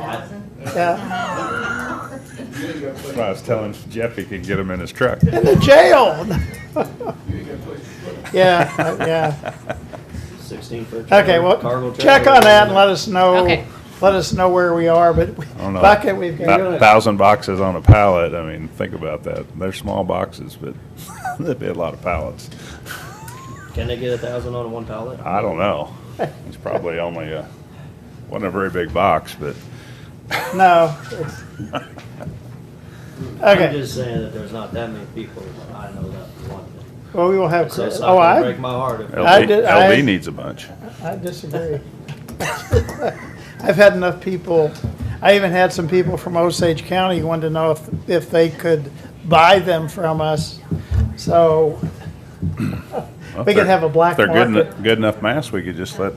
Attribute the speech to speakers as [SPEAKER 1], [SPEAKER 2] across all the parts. [SPEAKER 1] thousand.
[SPEAKER 2] Yeah.
[SPEAKER 3] You ain't got
[SPEAKER 4] Well, I was telling Jeff he could get him in his truck.
[SPEAKER 2] In the jail.
[SPEAKER 3] place
[SPEAKER 2] Yeah, yeah.
[SPEAKER 5] Sixteen foot.
[SPEAKER 2] Okay,
[SPEAKER 5] trailer,
[SPEAKER 2] well,
[SPEAKER 5] cargo
[SPEAKER 2] check
[SPEAKER 5] trailer.
[SPEAKER 2] on that and let us know,
[SPEAKER 1] Okay.
[SPEAKER 2] let us know where we are, but we-
[SPEAKER 4] I don't know.
[SPEAKER 2] bucket, we've got.
[SPEAKER 4] About thousand boxes on a pallet, I mean, think about that. They're small boxes, but that'd be a lot of pallets.
[SPEAKER 5] Can they get a thousand on one pallet?
[SPEAKER 4] I don't know. It's probably only a, wasn't a very big box, but
[SPEAKER 2] No. it's-
[SPEAKER 5] I'm
[SPEAKER 2] Okay,
[SPEAKER 5] just saying that there's not that many people that I know that want it.
[SPEAKER 2] well, we will have,
[SPEAKER 5] So it's
[SPEAKER 2] Chris-
[SPEAKER 5] not
[SPEAKER 2] oh,
[SPEAKER 5] gonna
[SPEAKER 2] I,
[SPEAKER 5] break my heart if.
[SPEAKER 2] I
[SPEAKER 4] LD,
[SPEAKER 2] did- I-
[SPEAKER 4] LD needs a bunch.
[SPEAKER 2] I disagree. I've had enough people, I even had some people from Osage County who wanted to know if, if they could buy them from us. So
[SPEAKER 4] Well, if
[SPEAKER 2] We could
[SPEAKER 4] they're-
[SPEAKER 2] have a black
[SPEAKER 4] if They're good,
[SPEAKER 2] market.
[SPEAKER 4] enough- good enough mass, we could just let,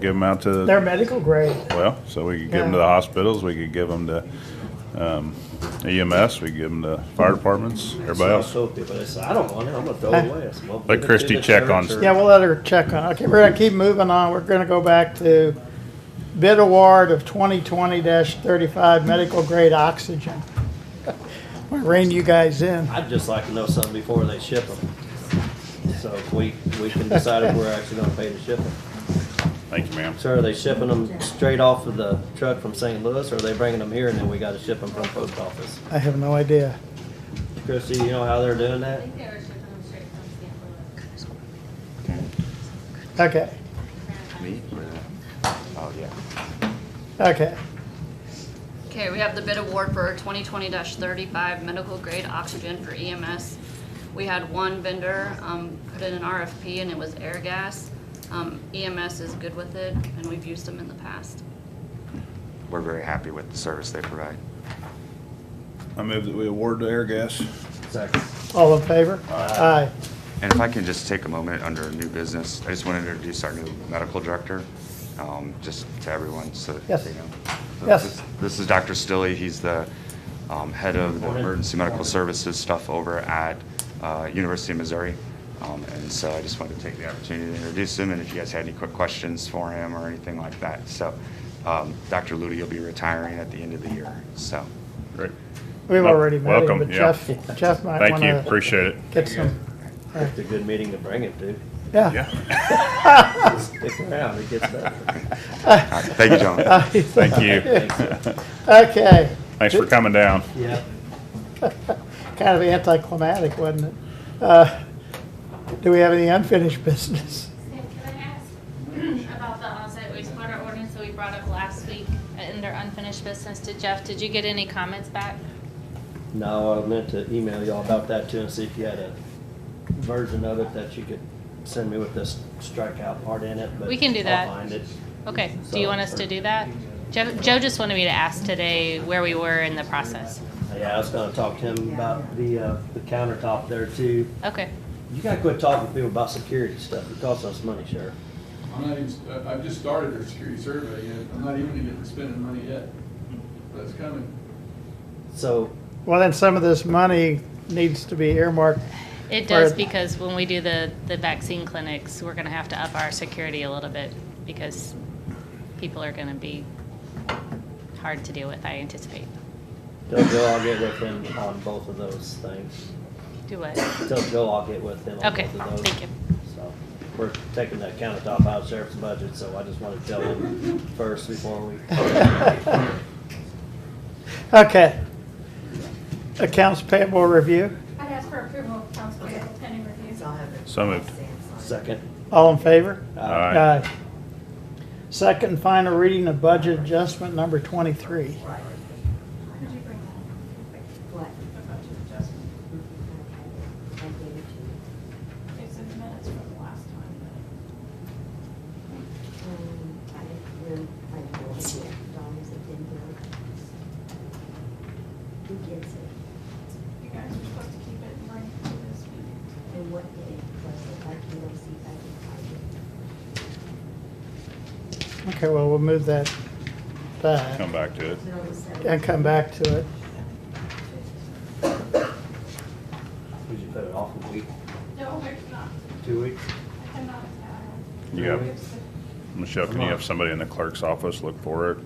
[SPEAKER 4] give them out to,
[SPEAKER 2] they're medical grade.
[SPEAKER 4] well, so we could give them to
[SPEAKER 2] Yeah.
[SPEAKER 4] the hospitals, we could give them to, um, EMS, we could give them to fire departments, everybody else.
[SPEAKER 5] So people, they say, I don't want it, I'm gonna throw it away. I said, "Well, give it to
[SPEAKER 4] Christie
[SPEAKER 5] the
[SPEAKER 4] check on-
[SPEAKER 5] church or-
[SPEAKER 2] Yeah, we'll let her check on, it. okay, we're gonna keep moving on, we're gonna go back to bid award of twenty twenty thirty-five medical grade oxygen. We rein you guys in,
[SPEAKER 5] I'd just like to know something before they ship them. So if we, we can decide if we're actually gonna pay to ship them.
[SPEAKER 4] Thank you, ma'am.
[SPEAKER 5] So are they shipping them straight off of the truck from St. Louis, or are they bringing them here and then we gotta ship them from post office?
[SPEAKER 2] I have no idea.
[SPEAKER 5] Christie, you know how they're doing
[SPEAKER 1] I
[SPEAKER 5] that?
[SPEAKER 1] think they were shipping them straight from St. Louis.
[SPEAKER 2] Okay,
[SPEAKER 6] Me? Oh, yeah.
[SPEAKER 2] okay,
[SPEAKER 7] Okay, we have the bid award for twenty twenty thirty-five medical grade oxygen for EMS. We had one vendor, um, put in an RFP and it was Airgas. Um, EMS is good with it and we've used them in the past.
[SPEAKER 6] We're very happy with the service they provide.
[SPEAKER 4] I move that we award to air gas.
[SPEAKER 5] Exactly.
[SPEAKER 2] all in favor? Aye.
[SPEAKER 6] And if I can just take a moment under new business, I just want to introduce our new medical director, um, just to everyone, so that
[SPEAKER 2] Yes.
[SPEAKER 6] they know. So
[SPEAKER 2] Yes.
[SPEAKER 6] this- This is Dr. Stilley. He's the um, head of the emergency medical services stuff over at uh, University of Missouri. Um, And so I just wanted to take the opportunity to introduce him, and if you guys had any quick questions for him or anything like that. So um, Dr. Luty will be retiring at the end of the year, so.
[SPEAKER 4] Great.
[SPEAKER 2] We've already met him,
[SPEAKER 4] Welcome,
[SPEAKER 2] but
[SPEAKER 4] yeah.
[SPEAKER 2] Jeff, Jeff might
[SPEAKER 4] Thank you,
[SPEAKER 2] wanna
[SPEAKER 4] appreciate it.
[SPEAKER 2] get some,
[SPEAKER 5] It's a good meeting to bring it to.
[SPEAKER 2] yeah.
[SPEAKER 5] Stick around, it gets better.
[SPEAKER 6] all right. Thank you, gentlemen.
[SPEAKER 4] Thank you.
[SPEAKER 2] Okay,
[SPEAKER 4] Thanks for coming down.
[SPEAKER 5] Yeah.
[SPEAKER 2] kind of anticlimactic, wasn't it? Uh, Do we have any unfinished business?
[SPEAKER 1] Sam, can I ask about the onsite wastewater ordinance that we brought up last week under unfinished business to Jeff? Did you get any comments back?
[SPEAKER 5] No, I meant to email y'all about that too and see if you had a version of it that you could send me with this strikeout part in it, but.
[SPEAKER 1] We can do
[SPEAKER 5] I'll
[SPEAKER 1] that.
[SPEAKER 5] find it.
[SPEAKER 1] Okay, do you want us to do that? Joe, Joe just wanted me to ask today where we were in the process.
[SPEAKER 5] Yeah, I was gonna talk to him about the, uh, the countertop there too.
[SPEAKER 1] Okay,
[SPEAKER 5] You gotta quit talking to people about security stuff. It costs us money, Sheriff.
[SPEAKER 3] I'm not even, I- I've just started our security survey yet. I'm not even even spending money yet. But it's coming.
[SPEAKER 5] So
[SPEAKER 2] Well, then some of this money needs to be earmarked.
[SPEAKER 1] it does
[SPEAKER 2] Or-
[SPEAKER 1] because when we do the, the vaccine clinics, we're gonna have to up our security a little bit because people are gonna be hard to deal with, I anticipate.
[SPEAKER 5] tell Joe I'll get with him on both of those things.
[SPEAKER 1] Do what?
[SPEAKER 5] Tell Joe I'll get with him on
[SPEAKER 1] Okay,
[SPEAKER 5] both of those.
[SPEAKER 1] thank you.
[SPEAKER 5] So we're taking that countertop out of sheriff's budget, so I just wanted to tell him first before we.
[SPEAKER 2] Okay. Accounts payable review,
[SPEAKER 8] I'd ask for approval of council table pending review.
[SPEAKER 4] So moved.
[SPEAKER 5] Second.
[SPEAKER 2] all in favor?
[SPEAKER 5] uh,
[SPEAKER 4] Aye.
[SPEAKER 2] Second and final reading of budget adjustment number twenty-three.
[SPEAKER 8] Could you bring that?
[SPEAKER 9] What? I gave it to you.
[SPEAKER 8] It's in the minutes from the last time.
[SPEAKER 9] Um, I didn't really, I had no idea. Don is it didn't really. Who gets it?
[SPEAKER 8] but You guys were supposed to keep it and bring it to this meeting.
[SPEAKER 9] And what day was it? I can go see if I can find it.
[SPEAKER 2] Okay, well, we'll move that back
[SPEAKER 4] Come back to it.
[SPEAKER 9] No, the seventh.
[SPEAKER 2] and come back to it.
[SPEAKER 5] Would you put it off a week,
[SPEAKER 8] No, there's not.
[SPEAKER 5] two weeks?
[SPEAKER 8] I cannot. uh,
[SPEAKER 4] You have,
[SPEAKER 8] it's the-
[SPEAKER 4] Michelle, can you have somebody in the clerk's office look for it?